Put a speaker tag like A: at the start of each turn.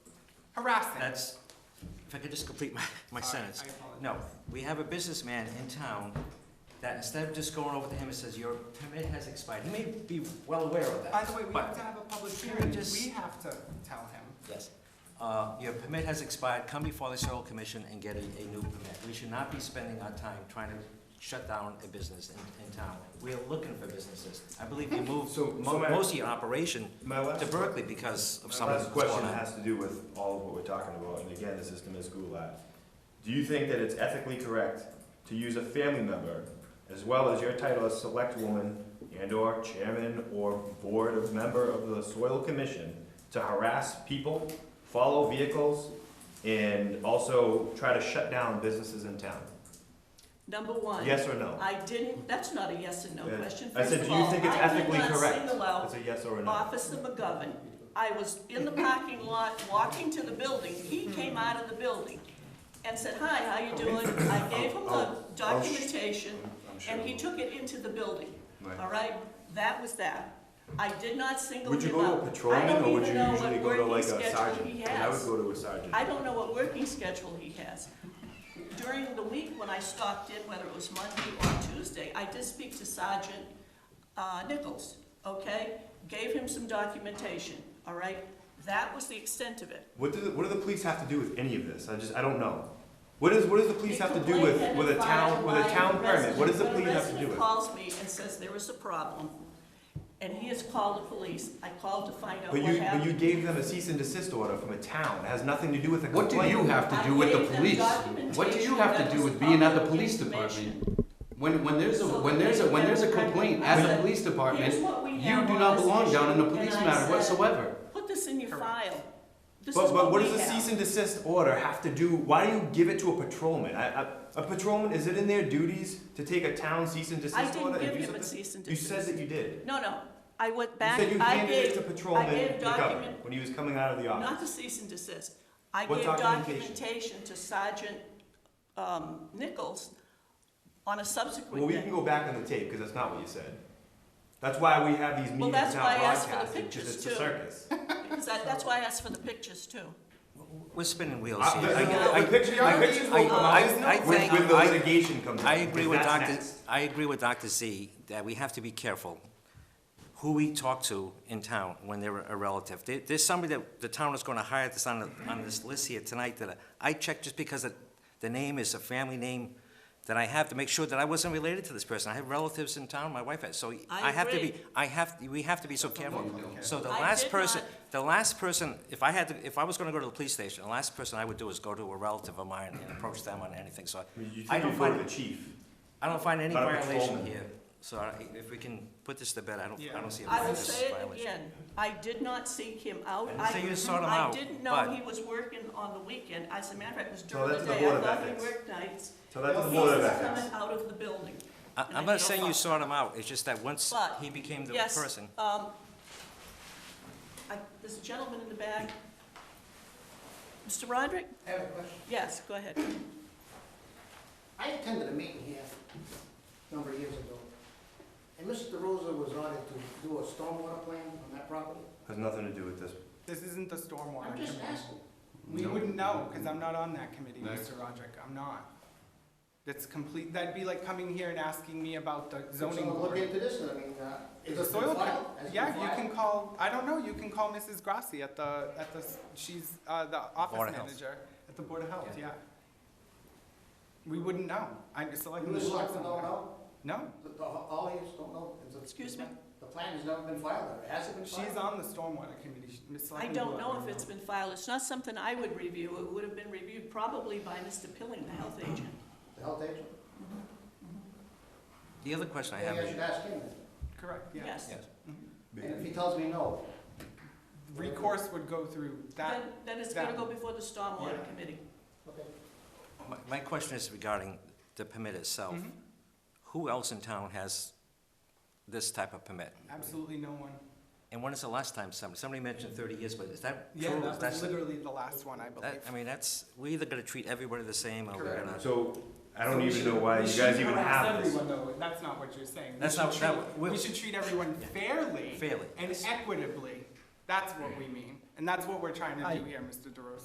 A: harassing.
B: That's, if I could just complete my, my
A: Sorry,
B: sentence.
A: I apologize.
B: No, we have a businessman in town that instead of just going over to him and says, your permit has expired, he may be well aware of that.
A: By the way, we
B: but-
A: have to have a public
B: Can we
A: hearing,
B: just-
A: we have to tell him.
B: Yes. Uh, Your permit has expired, come before the Soil Commission and get a, a new permit. We should not be spending our time trying to shut down a business in, in town. We are looking for businesses. I believe we moved
C: So- so
B: mo-
C: my-
B: most of your operation
C: My
B: to
C: last,
B: Berkeley because of
C: my
B: some of
C: last
B: what's going
C: question
B: on.
C: has to do with all of what we're talking about, and again, the system is gulag. Do you think that it's ethically correct to use a family member, as well as your title as select woman and/or chairman or board of member of the soil commission, to harass people, follow vehicles, and also try to shut down businesses in town?
D: Number one.
C: Yes or no?
D: I didn't, that's not a yes and no
C: Yeah.
D: question.
C: I said,
D: First
C: do
D: of
C: you
D: all,
C: think it's
D: I did
C: ethically
D: not
C: correct?
D: single out
C: It's a yes or a no?
D: Officer McGovern. I was in the parking lot, walking to the building, he came out of the building and said, hi, how you doing? I gave him the
C: I'll- I'll sh-
D: documentation,
C: I'm sure.
D: and he took it into the building,
C: Right.
D: all right? That was that. I did not single
C: Would
D: him out.
C: you go to a patrolman, or would you usually go to like a
D: I don't even know what working schedule he
C: sergeant? I would
D: has.
C: go to a sergeant.
D: I don't know what working schedule he has. During the week, when I stopped in, whether it was Monday or Tuesday, I did speak to Sergeant uh, Nichols, okay? Gave him some documentation, all right? That was the extent of it.
C: What do, the- what do the police have to do with any of this? I just, I don't know. What is, what does the police have to do with, with a town, with a town permit? What does the police have to do
D: When a
C: with?
D: resident calls me and says there is a problem, and he has called the police, I called to find out
C: But
D: what
C: you, but you
D: happened.
C: gave them a cease and desist order from a town. It has nothing to do with a
E: What
C: complaint.
E: do you have to do with the police? What do you have to do with being at the police department? When, when there's a, when there's a, when there's a complaint at the police department, you do not belong down in the police matter whatsoever.
D: Put this in your file. This is
C: But, but what
D: we
C: does a
D: have.
C: cease and desist order have to do, why do you give it to a patrolman? I, I, a patrolman, is it in their duties to take a town cease and desist
D: I
C: order?
D: didn't
C: and
D: give
C: do
D: him
C: something?
D: a cease and
C: You said
D: desist.
C: that you did.
D: No, no, I went
C: You
D: back,
C: said you
D: I
C: handed it
D: gave,
C: to
D: I
C: patrolman
D: gave document,
C: McGovern when he was coming out of the office.
D: not the cease and desist. I
C: What
D: gave
C: documentation?
D: documentation to Sergeant um, Nichols on a
C: Well,
D: subsequent
C: we can
D: day.
C: go back on the tape, because that's not what you said. That's why we have these
D: Well,
C: meetings
D: that's
C: now
D: why I asked for the
C: broadcasted, because
D: pictures,
C: it's a
D: too.
C: circus.
D: Because that- That's why I asked for the pictures too.
B: We're spinning wheels
C: I-
B: here. Oh, I-
C: the-
B: I-
C: The pictures, the
A: I-
C: pictures
B: I-
C: will come out
B: I- I
C: when-
B: think-
C: when the
B: I-
C: litigation comes
B: I
C: out,
B: agree
C: because
B: with
C: that's
B: Dr.,
C: next.
B: I agree with Dr. Z that we have to be careful who we talk to in town when they're a relative. There, there's somebody that the town is gonna hire that's on, the- on this list here tonight that I checked just because it- the name is a family name that I have to make sure that I wasn't related to this person. I have relatives in town, my wife has, so
D: I
B: I have to be,
D: agree.
B: I have, we have to be so careful. So the
D: I
B: last
D: did
B: person,
D: not
B: the last person, if I had to, if I was gonna go to the police station, the last person I would do is go to a relative of mine and approach them on anything, so
C: I mean, You
B: I
C: think
B: don't
C: you go
B: find
C: to
B: it
C: the chief.
B: I don't find any
C: Not a
B: violation
C: patrolman.
B: here, so I- if we can put this to bed, I don't, I
A: Yeah.
B: don't see a
D: I will
B: violation.
D: say it again, I did not seek him out.
B: I didn't say you sought him
D: I-
B: out,
D: I didn't
B: but-
D: know he was working on the weekend. As a matter of fact, it was during
C: that's
D: the
C: the
D: day.
C: Board
D: I
C: of
D: thought he
C: Ethics.
D: worked nights.
C: So that's
A: No,
C: the
D: He
C: board of
D: was
C: ethics.
D: coming out of the building.
B: I-
D: and I
B: I'm not
D: feel
B: saying you
D: fine.
B: sought him out, it's just that once
D: But,
B: he became the
D: Yes,
B: person.
D: um, I- There's a gentleman in the back. Mr. Roderick?
F: I have a question.
D: Yes, go ahead.
F: I attended a meeting here a number of years ago, and Mr. Rosa was ordered to do a stormwater plan on that property.
C: Has nothing to do with this.
A: This isn't the stormwater
F: I'm just
A: committee.
F: asking.
A: We
E: No.
A: wouldn't know, because I'm not on that committee,
E: Next.
A: Mr. Roderick, I'm not. That's complete, that'd be like coming here and asking me about the zoning
F: So look
A: board.
F: into this, and I mean, uh, is
A: The
F: it
A: soil,
F: filed?
A: co-
F: Has it been
A: yeah, you
F: filed?
A: can call, I don't know, you can call Mrs. Grassi at the, at the, s- she's, uh, the
B: Board
A: office
B: of Health.
A: manager at the Board of Health, yeah. We wouldn't know, I'm selecting.
F: You as selectmen don't know,
A: No,
F: The- the- all of yous don't know. Is it-
D: Excuse me?
F: The plan has never been filed, or has it been filed?
A: she's on the stormwater committee, She- Ms.
D: I
A: Selectman.
D: don't
A: Bullock
D: know
A: would
D: if it's been filed. It's not something I would review. It would have been reviewed probably by Mr. Pilling, the health agent.
F: The health agent?
B: The other question I have
F: Maybe I should
B: is,
F: ask him, then.
A: Correct, yeah.
D: Yes.
B: yes,
F: and if he tells me no,
A: Mm-hmm. Recourse would go through that,
D: Then, then it's gonna
A: that-
D: go before the stormwater
A: Yeah.
D: committee.
F: okay.
B: my, my question is regarding the permit itself.
A: Mhm.
B: Who else in town has this type of permit?
A: absolutely no one.
B: And when is the last time somebody, somebody mentioned thirty years, but is that
A: Yeah,
B: true? Is
A: that
B: that-
A: was literally the last one, I believe.
B: that- I mean, that's, we either gonna treat everybody the same, or we're
A: Correct.
B: gonna,
C: So, I don't
A: So we
C: even know
A: should-
C: why
A: we
C: you guys
A: shouldn't
C: even
A: harass
C: have this.
A: everyone, though. That's not what you're saying. We
B: That's
A: should
B: not- that
A: treat-
B: we-
A: We should treat everyone fairly
B: fairly.
A: and equitably. That's what we mean. And that's what we're trying to do here, Mr. DeRosa.